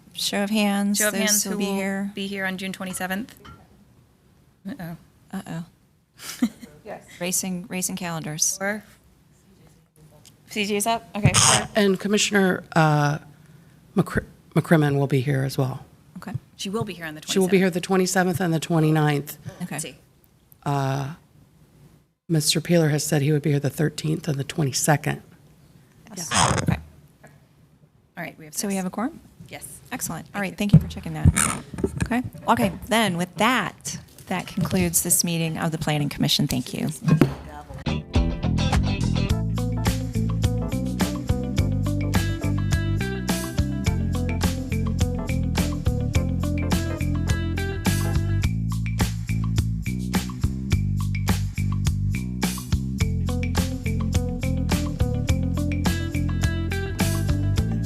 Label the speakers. Speaker 1: Show of hands.
Speaker 2: Show of
Speaker 1: Those
Speaker 2: hands who
Speaker 1: will be here.
Speaker 2: be here on June 27th. Uh-oh.
Speaker 1: Uh-oh. Yes. Racing, racing calendars.
Speaker 2: Or? CJ's up? Okay. four.
Speaker 3: And Commissioner uh, McCr- McCrimmon will be here as well.
Speaker 1: Okay,
Speaker 2: She will be here on the 27th.
Speaker 3: She will be here the 27th and the 29th.
Speaker 1: okay.
Speaker 2: See.
Speaker 3: Mr. Peeler has said he would be here the 13th and the 22nd.
Speaker 1: Okay.
Speaker 2: All right, we have
Speaker 1: So we
Speaker 2: six.
Speaker 1: have a quorum?
Speaker 2: Yes.
Speaker 1: Excellent. All right, thank you for checking that. Okay, okay, then with that, that concludes this meeting of the Planning Commission. Thank you.